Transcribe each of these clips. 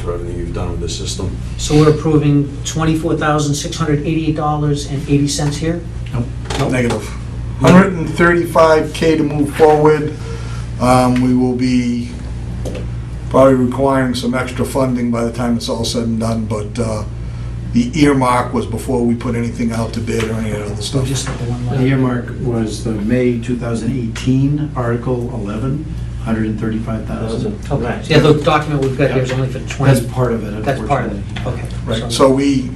for everything you've done with this system. So we're approving $24,688.80 here? Negative. 135K to move forward. Um, We will be probably requiring some extra funding by the time it's all said and done, but uh, the earmark was before we put anything out to bid or any of the other Or stuff. just the one The line? earmark was the May 2018, Article 11, 135,000. Okay, so yeah, the document we've got here is only for That's 20, part of it, that's part of unfortunately. it, okay. Right, so we,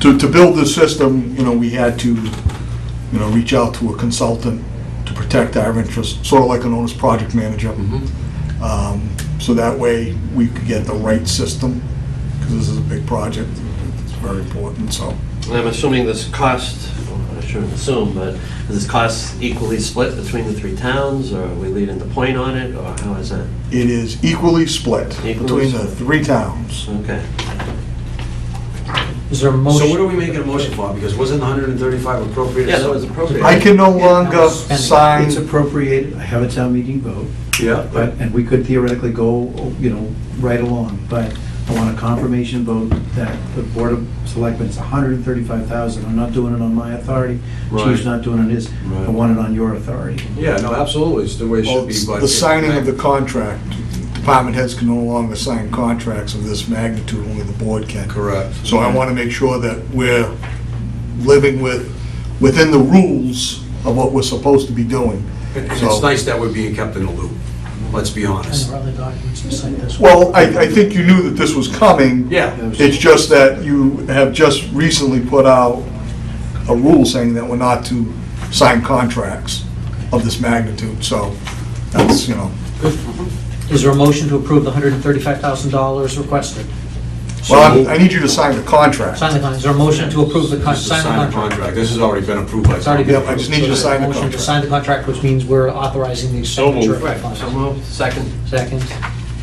to, to build this system, you know, we had to, you know, reach out to a consultant to protect our interests, sort of like an owner's project manager. Um, So that way, we could get the right system, because this is a big project, it's very important, so. And I'm assuming this cost, well, I shouldn't assume, but is this cost equally split between the three towns, or are we leading the point on it, or how is that? It is equally split between the three towns. Okay. Is there a So what are motion? we making a motion for? Because wasn't 135 appropriated? Yeah, that was appropriate. I can no Yeah, longer sign, It's appropriate, I have a town meeting vote, Yeah, but, but and we could theoretically go, you know, right along, but I want a confirmation vote that the Board of Selectmen, it's 135,000, I'm not doing it on my authority, Right. Chief's not doing it his, I Right. want it on your authority. Yeah, no, absolutely, it's the way it should well, be, but... the signing of the contract. Department heads can no longer sign contracts of this magnitude, only the board can. Correct. So I want to make sure that we're living with, within the rules of what we're supposed to be doing. And So- It's nice that we're being kept in the loop, let's be And there honest. are other documents beside this one? Well, I, I think you knew that this was coming. Yeah, It's just that you have just recently put out a rule saying that we're not to sign contracts of this magnitude, so that's, you know. Is there a motion to approve the $135,000 requested? Well, I I need you to sign the contract. Sign the contract, is there a motion to approve the, con- this is a sign signed the contract? contract, this has already been approved by... It's already been Yep, I just need you to approved. sign the Motion to contract. sign the contract, which means we're authorizing the expenditure of funds. So moved, second? Second,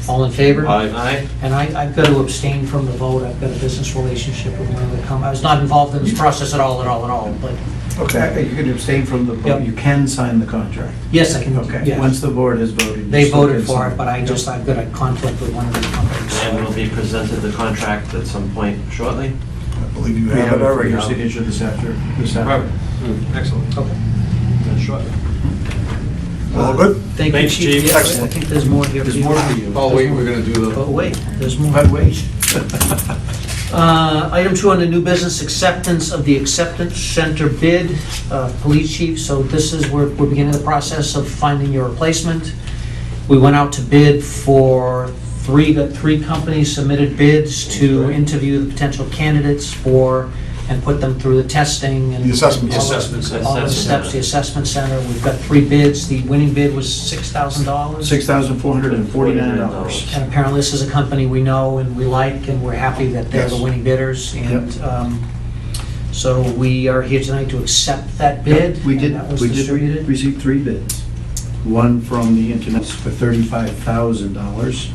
all in favor? Aye. And I, I've got to abstain from the vote, I've got a business relationship with one of the com, I was not involved in this process at all, at all, at all, but, Okay. Exactly, you can abstain from the, vote. Yep. you can sign the contract. yes, I can, Okay, once yes. the board has voted. you They still voted can for sign. it, but I just, I've got a conflict with one of the And we'll companies. be presented the contract at some point shortly? I believe you We have have it it for already. your signature this after, this after. Excellent. Okay. Shortly. All good? Thank you, Thanks, chief. Chief. Yes, I Excellent. think there's more here. There's more for you. Oh, wait, we're gonna do the... But wait, there's more. But wait. Uh, Item two on the new business, acceptance of the acceptance center bid, uh, police chief. So this is, we're we're beginning the process of finding your replacement. We went out to bid for three, the three companies submitted bids to interview the potential candidates for, and put them through the testing and. The assessment. The assessment center. All the steps, the assessment center. We've got three bids. The winning bid was $6,000. $6,449. And apparently, this is a company we know and we like, and we're happy that they're the Yes. winning bidders. And um, so we are here tonight to accept that bid. We And that did, was we did distributed. receive three bids. One from the internet for $35,000.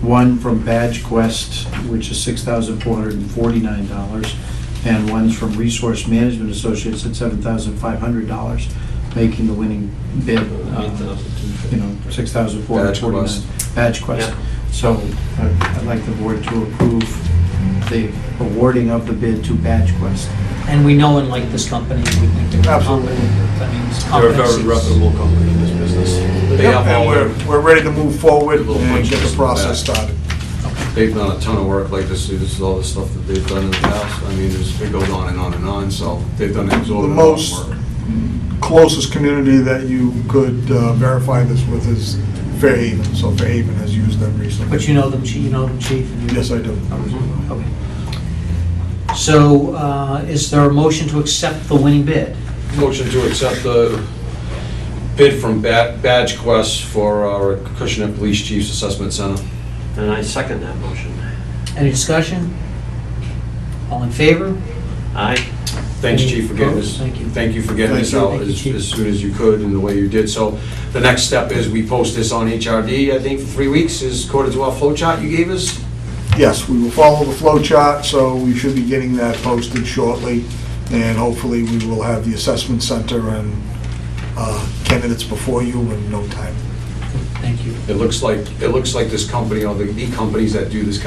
One from Badge Quest, which is $6,449. And one's from Resource Management Associates at $7,500, making the winning bid, uh, you know, Badge Quest. $6,449. Badge Quest. Yeah. So I- I'd like the board to approve the awarding of the bid to Badge Quest. And we know and like this company. We think they're Absolutely. competent. I mean, it's They're a very competencies. reputable company in this business. They have And all we're, their, we're ready to move forward Little and punches get the in the process back. started. they've done a ton of work like this, this is all the stuff that they've done in the past. I mean, it's- it goes on and on and on, so they've done an exorbitant The amount most- of work. Closest community that you could uh, verify this with is Fairhaven, so Fairhaven has used them recently. But you know them, chief, you know them, chief. and you- Yes, I do. Mm-hmm. Okay. So uh, is there a motion to accept the winning bid? Motion to accept the bid from Ba- Badge Quest for our Acushnet Police Chief's Assessment Center. And I second that motion. Any discussion? All in favor? Aye. Thanks, Chief, for getting this. Thank you. Thank you for getting this Thank you. out Thank you, as Chief. as soon as you could and the way you did. So the next step is we post this on HRD, I think, for three weeks, is according to our flow chart you gave us. Yes, we will follow the flow chart, so we should be getting that posted shortly, and hopefully we will have the assessment center and uh, candidates before you in no time. Thank you. It looks like, it looks like this company, or the the companies that do this kind